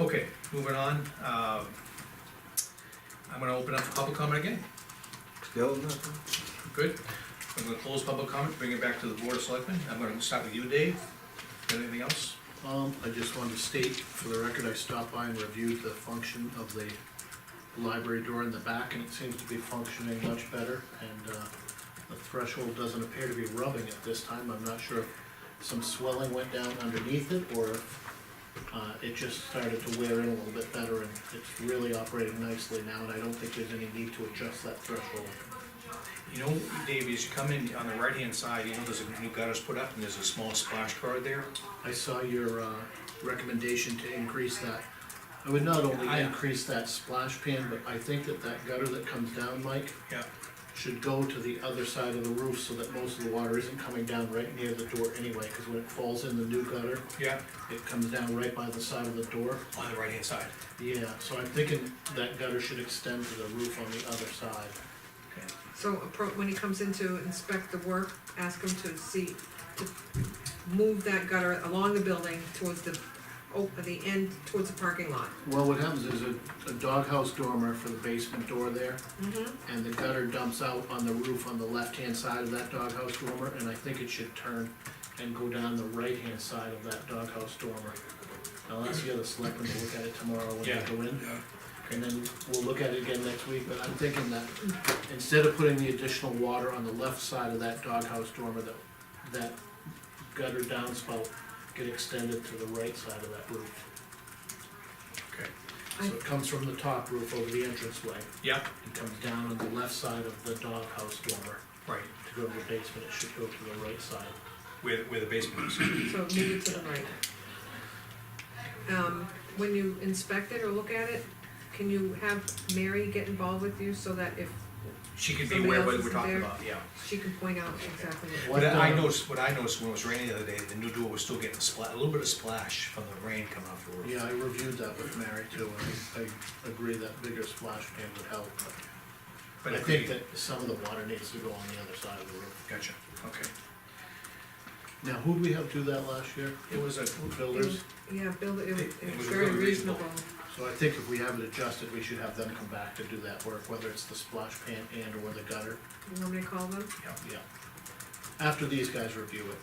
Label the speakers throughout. Speaker 1: Okay, moving on, um, I'm gonna open up for public comment again,
Speaker 2: Still nothing?
Speaker 1: good. I'm gonna close public comment, bring it back to the board of selectmen, I'm gonna start with you, Dave, anything else?
Speaker 3: Um, I just wanted to state for the record, I stopped by and reviewed the function of the library door in the back, and it seems to be functioning much better, and, uh, the threshold doesn't appear to be rubbing at this time, I'm not sure if some swelling went down underneath it, or, uh, it just started to wear in a little bit better, and it's really operating nicely now, and I don't think there's any need to adjust that threshold.
Speaker 1: You know, Dave, as you come in on the right-hand side, you know, there's a new gutters put up, and there's a small splash guard there.
Speaker 3: I saw your, uh, recommendation to increase that. I would not only
Speaker 1: I-
Speaker 3: increase that splash pan, but I think that that gutter that comes down, Mike,
Speaker 1: Yeah.
Speaker 3: should go to the other side of the roof so that most of the water isn't coming down right near the door anyway, cause when it falls in the new gutter,
Speaker 1: Yeah,
Speaker 3: it comes down right by the side of the door.
Speaker 1: on the right-hand side.
Speaker 3: Yeah, so I'm thinking that gutter should extend to the roof on the other side.
Speaker 1: Okay.
Speaker 4: So appro- when he comes in to inspect the work, ask him to see, to move that gutter along the building towards the, oh, the end, towards the parking lot.
Speaker 3: Well, what happens is a, a doghouse dormer for the basement door there, and the gutter dumps out on the roof on the left-hand side of that doghouse dormer, and I think it should turn and go down the right-hand side of that doghouse dormer. I'll ask the other selectmen to look at it tomorrow when
Speaker 1: Yeah.
Speaker 3: they go in, and then we'll look at it again next week, but I'm thinking that instead of putting the additional water on the left side of that doghouse dormer, that, that gutter downspout get extended to the right side of that roof.
Speaker 1: Okay.
Speaker 3: So it comes from the top roof over the entranceway,
Speaker 1: Yeah,
Speaker 3: it comes down on the left side of the doghouse dormer.
Speaker 1: right,
Speaker 3: To go to the basement, it should go to the right side.
Speaker 1: where, where the basement is.
Speaker 4: So move it to the right. Um, when you inspect it or look at it, can you have Mary get involved with you so that if
Speaker 1: She can be
Speaker 4: Somebody
Speaker 1: aware of
Speaker 4: else
Speaker 1: what we're
Speaker 4: isn't
Speaker 1: talking
Speaker 4: there?
Speaker 1: about, yeah.
Speaker 4: she can point out exactly what?
Speaker 3: What,
Speaker 1: But I
Speaker 3: uh,
Speaker 1: noticed, what I noticed when it was raining the other day, the new door was still getting a splat, a little bit of splash from the rain coming off the roof.
Speaker 3: Yeah, I reviewed that with Mary too, and I, I agree that bigger splash pan would help, but
Speaker 1: But
Speaker 3: I
Speaker 1: it could
Speaker 3: think
Speaker 1: be-
Speaker 3: that some of the water needs to go on the other side of the roof.
Speaker 1: Gotcha, okay.
Speaker 3: Now, who'd we have do that last year?
Speaker 1: It was a,
Speaker 3: Builders,
Speaker 4: Yeah, build it, it was-
Speaker 1: It
Speaker 4: it
Speaker 1: was
Speaker 4: was very
Speaker 1: very reasonable.
Speaker 4: reasonable.
Speaker 3: so I think if we have it adjusted, we should have them come back to do that work, whether it's the splash pan and or the gutter,
Speaker 4: You want me to call them?
Speaker 3: yeah. After these guys review it.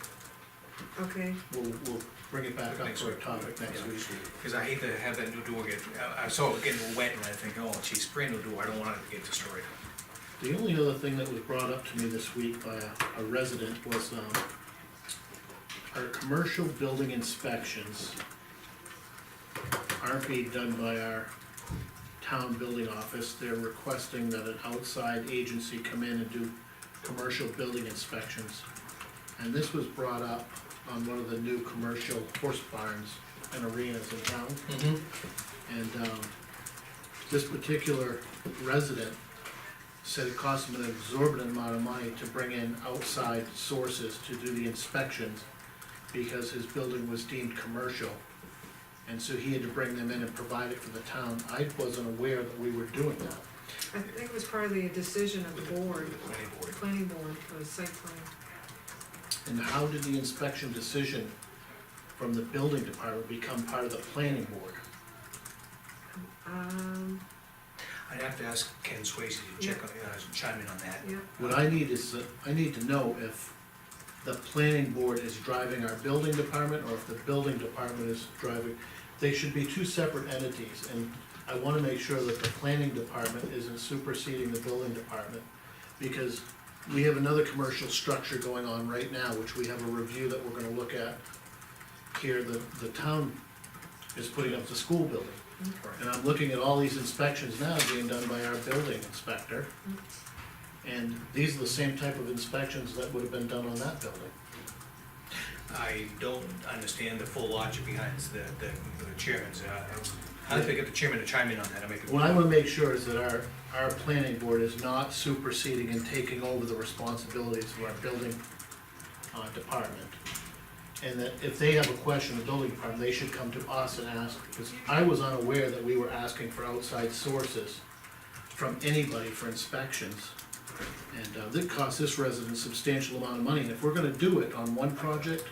Speaker 4: Okay,
Speaker 3: We'll, we'll bring it back up
Speaker 1: Next
Speaker 3: for a
Speaker 1: week.
Speaker 3: topic next
Speaker 1: Yeah.
Speaker 3: week.
Speaker 1: because I hate to have that new door get, I, I saw it getting wet and I think, oh, geez, brand new door, I don't want it to get destroyed.
Speaker 3: The only other thing that was brought up to me this week by a, a resident was, um, our commercial building inspections aren't being done by our town building office. They're requesting that an outside agency come in and do commercial building inspections. And this was brought up on one of the new commercial horse barns and arenas in town.
Speaker 1: Mm-hmm.
Speaker 3: And um, this particular resident said it cost him an exorbitant amount of money to bring in outside sources to do the inspections because his building was deemed commercial. And so he had to bring them in and provide it for the town. I wasn't aware that we were doing that.
Speaker 4: I think it was part of the decision of the board,
Speaker 1: Planning board.
Speaker 4: planning board, or the site plan.
Speaker 3: And how did the inspection decision from the building department become part of the planning board?
Speaker 4: Um,
Speaker 1: I'd have to ask Ken Swayze to check on, uh, chime in on that.
Speaker 4: yeah,
Speaker 3: What I need is, that- I need to know if the planning board is driving our building department, or if the building department is driving. They should be two separate entities, and I wanna make sure that the planning department isn't superseding the building department. Because we have another commercial structure going on right now, which we have a review that we're gonna look at. Here, the, the town is putting up the school building. And I'm looking at all these inspections now being done by our building inspector. And these are the same type of inspections that would have been done on that building.
Speaker 1: I don't understand the full logic behind the, the the chairman's, uh, I'd have to get the chairman to chime in on that, I make it.
Speaker 3: What I wanna make sure is that our, our planning board is not superseding and taking over the responsibilities of our building, uh, department. And that if they have a question, the building department, they should come to us and ask, because I was unaware that we were asking for outside sources from anybody for inspections. And, uh, that cost this resident a substantial amount of money, and if we're gonna do it on one project,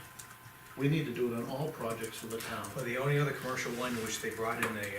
Speaker 3: We need to do it on all projects for the town.
Speaker 1: Well, the only other commercial one which they brought in a